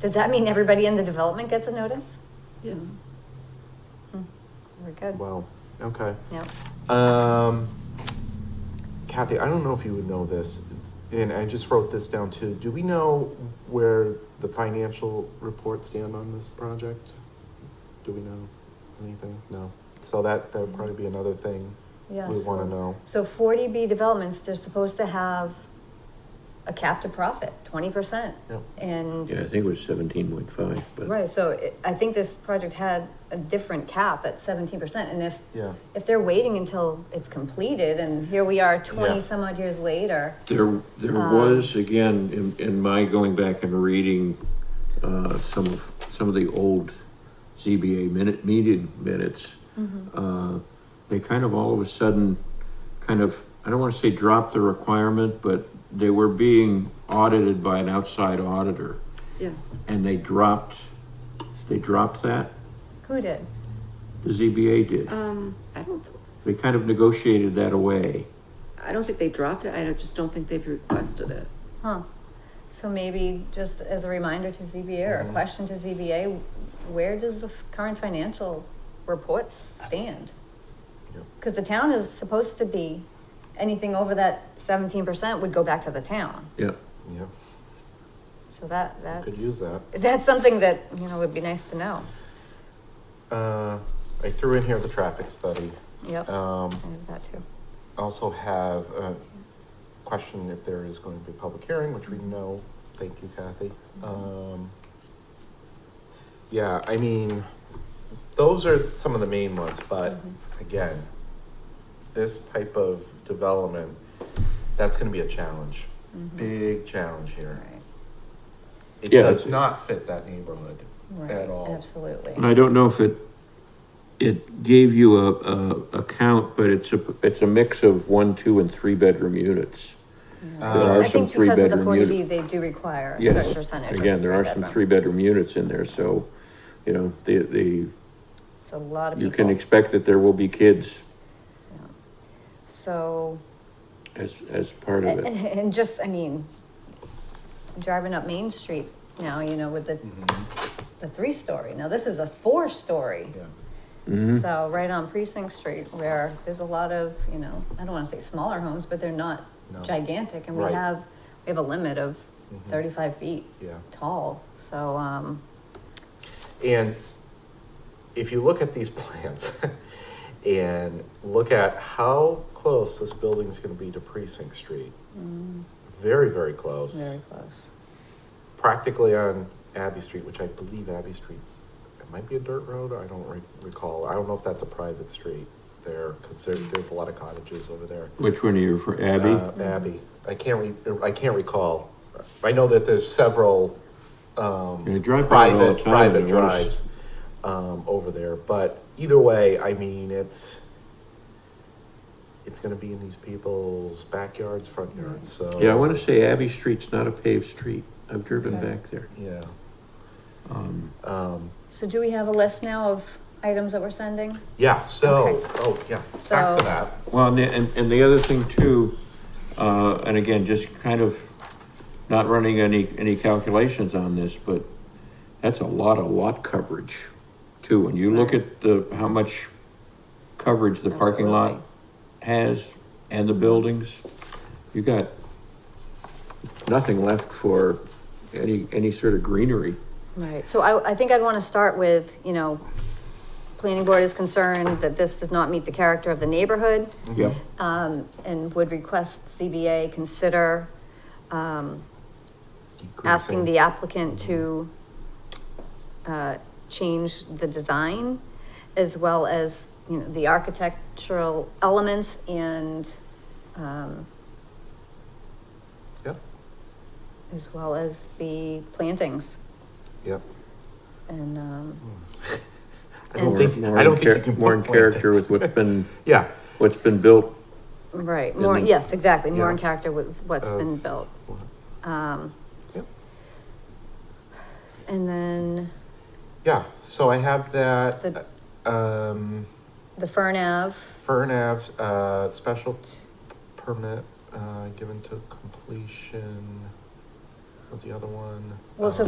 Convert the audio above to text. Does that mean everybody in the development gets a notice? Yes. Hmm, We're good. Wow, okay. Yep. Um, Kathy, I don't know if you would know this, and I just wrote this down too. Do we know where the financial reports stand on this project? Do we know anything? No. So that, that would probably be another thing Yeah. we so- wanna know. So forty B developments, they're supposed to have a cap to profit, twenty percent. Yep. Yeah, I And, think it was seventeen point five, but. right, so it- I think this project had a different cap at seventeen percent. And if, Yeah, if they're waiting until it's completed and here we are twenty Yeah. some odd years later, There, there Um, was, again, in, in my going back and reading, uh, some of, some of the old ZBA minute, meeting minutes, uh, they kind of all of a sudden, kind of, I don't wanna say dropped the requirement, but they were being audited by an outside auditor, Yeah, and they dropped, they dropped that, who did? the ZBA did. um, I don't, th- They kind of negotiated that away. I don't think they dropped it, I don't- just don't think they've requested it. Huh. So maybe just as a reminder to ZBA or a Mhm. question to ZBA, where does the f- current financial reports stand? Yep. Because the town is supposed to be, anything over that seventeen percent would go back to the town. Yeah, yeah, So that, that's, could use that. that's something that, you know, would be nice to know. Uh, I threw in here the traffic study. Yep, Um, I have that too. also have a question if there is going to be a public hearing, which we know. Thank you, Kathy. Mm-hmm. Um, yeah, I mean, those are some of the main ones, but Mhm. again, this type of development, that's gonna be a challenge, Mhm. big challenge here. Right. It Yeah, does it's- not fit that neighborhood. Right, all. and absolutely. I don't know if it, it gave you a, a, a count, but it's a, it's a mix of one, two, and three bedroom units. Yeah. There are I think because of some the three-bedroom forty B, they do require a Yes. certain percentage. of Again, there are some three-bedroom. three bedroom units in there, so, you know, the, the, It's a lot of you can people. expect that there will be kids So. as, as part of And, it. and just, I mean, driving up Main Street now, you know, with the, the three story. Now this is a four story. Mm-hmm. Yeah. Mhm. So right on Precinct Street where there's a lot of, you know, I don't want to say smaller homes, but they're not No. gigantic. And we Right. have, we have a limit of Mm-hmm. Mhm. 35 feet Yeah. tall. So, um, And if you look at these plans and look at how close this building is gonna be to Precinct Street, mm, very, very close. very close. Practically on Abbey Street, which I believe Abbey Street's, it might be a dirt road, I don't re- recall. I don't know if that's a private street there, because there, there's a lot of cottages over there. Which one are you for, Abby? Uh, Abbey, I can't re, I can't recall. I know that there's several, um, Yeah, I drive by it all the private, time, private and I notice- drives, um, over there, but either way, I mean, it's, it's gonna be in these people's backyards, front yards, so. Yeah, I wanna say Abbey Street's not a paved street. I've driven Okay. back there. Yeah, Um, um, So do we have a list now of items that we're sending? yeah, so, Okay. oh, yeah, back So- to that. Well, and, the- and, and the other thing too, uh, and again, just kind of not running any, any calculations on this, but that's a lot of lot coverage too. When you look at the, how much coverage the parking lot has and the buildings, you got nothing left for any, any sort of greenery. Right, so I, I think I'd want to start with, you know, planning board is concerned that this does not meet the character of the neighborhood, Yep. um, and would request CBA consider, um, asking the applicant to, uh, change the design as well as, you know, the architectural elements and, um, Yep. as well as the plantings Yep. and, um, I don't And- think, More I don't in think you char- can. More in pinpoint character this. with what's been, Yeah, what's been built Right, And more, then- yes, exactly, more in Yeah. character with what's been Of- built. Um, Yep. and then yeah, so I have that, The- um. the Fern Ave, Fern Ave, uh, special permit, uh, given to completion, was the other one? Well, so Um,